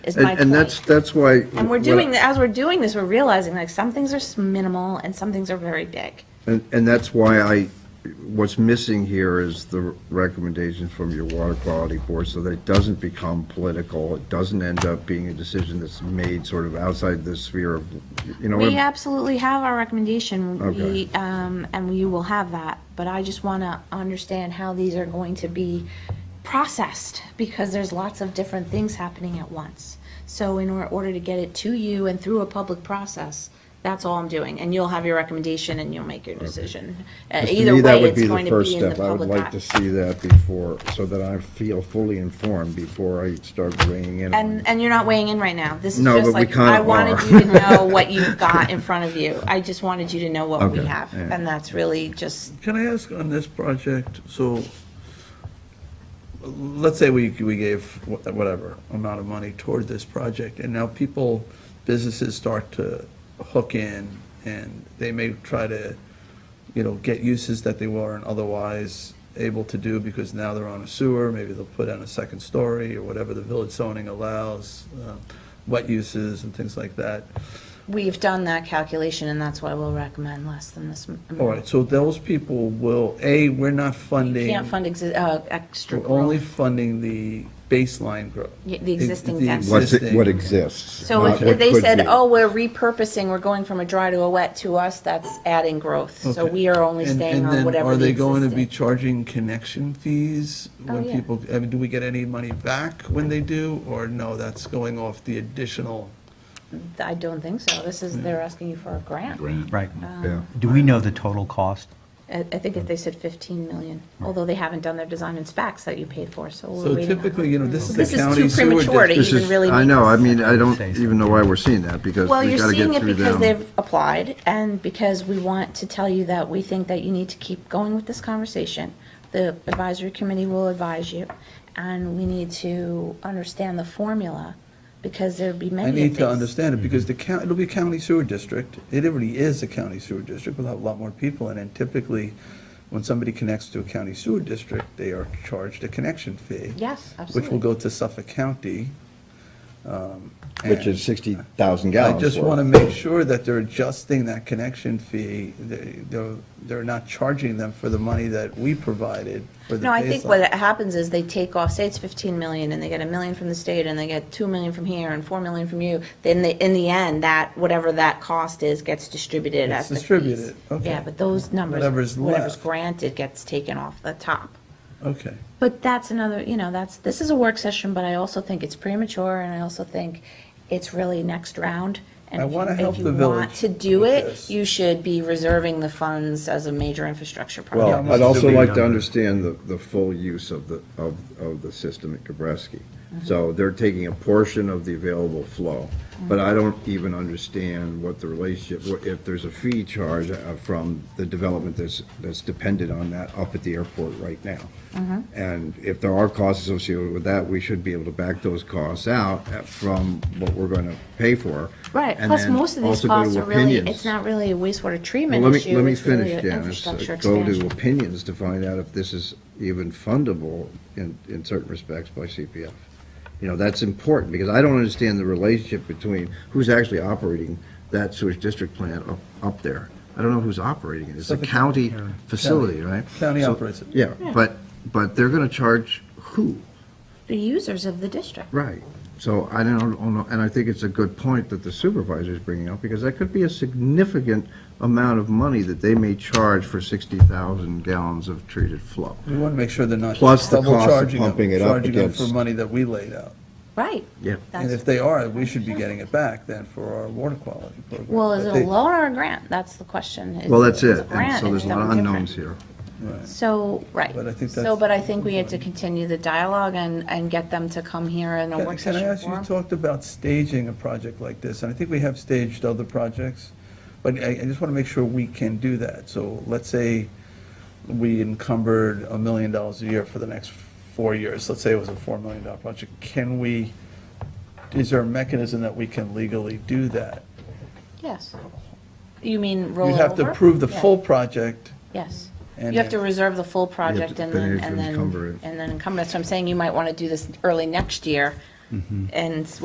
is my And, point. and that's, that's why. And we're doing, as we're doing this, we're realizing like some things are s- minimal and some things are very big. And, and that's why I, what's missing here is the recommendations from your water quality board, so that it doesn't become political. It doesn't end up being a decision that's made sort of outside the sphere of, you know. We what I'm- absolutely have our recommendation, we, Okay. um, and we will have that, but I just want to understand how these are going to be processed, because there's lots of different things happening at once. So in or- order to get it to you and through a public process, that's all I'm doing, and you'll have your recommendation and you'll make your decision. Uh, 'cause to Either me, that way, would it's the going to first be in the step. I would public. like eye. to see that before, so that I feel fully informed before I start weighing in. on And, and you're not weighing in right now. This is No, just but we like, kinda I wanted are. you to know what you've got in front of you. I just wanted you to know what we Okay, have. yeah. And that's really just, Can I ask on this project, so, let's say we, we gave wha- whatever amount of money toward this project, and now people, businesses start to hook in, and they may try to, you know, get uses that they weren't otherwise able to do because now they're on a sewer, maybe they'll put on a second story, or whatever the village zoning allows, uh, wet uses and things like that. we've done that calculation and that's why we'll recommend less than this. m- All amount. right, so those people will, A, we're not funding. Can't fund exi- uh, extra We're only growth. funding the baseline growth. Yeah, the existing The density. What's, it- existing- what exists. So not if what if they could said, be. oh, we're repurposing, we're going from a dry to a wet, to us, that's adding growth. So Okay. we are only And- staying and on then whatever the Are they going to be existing. charging connection fees Oh, when yeah. people, I mean, do we get any money back when they do? Or no, that's going off the additional? I don't think so. This is, they're asking you for a grant. Right. Yeah. Do we know the total cost? I I think if they said 15 million, although they haven't done their design and specs that you paid for, so we're So waiting on typically, you know, this is the This is county too sewer district. premature to This even is- really I make know, I sense. mean, I don't even know why we're seeing that, because Well, we you're gotta seeing get it through because them. they've applied and because we want to tell you that we think that you need to keep going with this conversation. The advisory committee will advise you and we need to understand the formula because there'd be many I of need to these. understand it Mm-hmm. because the county, it'll be a county sewer district. It already is a county sewer district with a lot more people in it. And Typically, when somebody connects to a county sewer district, they are charged a connection fee. Yes, Which will absolutely. go to Suffolk County. um, Which and is sixty thousand I gallons. just worth. want to make sure that they're adjusting that connection fee. They- They're, they're not charging them for the money that we provided for the No, I think what baseline. happens is they take off, say it's 15 million, and they get a million from the state, and they get 2 million from here, and 4 million from you, then they- in the end, that, whatever that cost is, gets distributed It's as the fees. distributed, okay. Yeah, but those numbers, Whatever's whatever's left. granted gets taken off the top. Okay. But that's another, you know, that's, this is a work session, but I also think it's premature, and I also think it's really next round. And I if you- wanna help the If you want village to do with it, this. you should be reserving the funds as a major infrastructure project. Well, Yeah, I'd Mr. also Big like to Number. understand the, the full use of the, of, of the system at Gabreski. Mm-hmm. So they're taking a portion of the available flow, Mm-hmm. but I don't even understand what the relationship, what- if there's a fee charge uh, from the development that's, that's dependent on that up at the airport right now. Mm-hmm. And if there are costs associated with that, we should be able to back those costs out uh, from what we're going to pay for. Right, and plus then most of these also go to costs are really, opinions. it's not really a wastewater Well, treatment let me, issue, let me it's really finish, an Janice. Uh, infrastructure Go to expansion. opinions to find out if this is even fundable in, in certain respects by CPF. You know, that's important, because I don't understand the relationship between who's actually operating that sewage district plant up, up there. I don't know who's operating it. It's a Suffolk county facility, County. right? County So- operates it. Yeah, but, but they're gonna charge who? The users of the district. Right. So I don't know, and I think it's a good point that the supervisor's bringing up, because that could be a significant amount of money that they may charge for 60,000 gallons of treated flow. We want to make sure they're not Plus the double cost of charging them, pumping it up charging them for against- money that we laid out. Right. Yeah. And if That's, they are, we should be getting it back then for our water quality program. well, is it But a they- loan or a grant? That's the question. Is- Well, that's it's a it. And grant, so there's it's a lot of something different. unknowns here. Right. So, right. But I think So, that's- but I think we had to continue the dialogue and, and get them to come here in a Can work can I session ask, you forum. talked about staging a project like this, and I think we have staged other projects, but I, I just want to make sure we can do that. So let's say we encumbered a million dollars a year for the next four years, let's say it was a four million dollar project, can we, is there a mechanism that we can legally do that? Yes. You mean roll You it have to over? approve the Yeah. full project, Yes. And You have to then- reserve the full project to- and then then, you have to and then, encumber it. Mm-hmm. and then encumber it. So I'm saying you might want to do this early next year and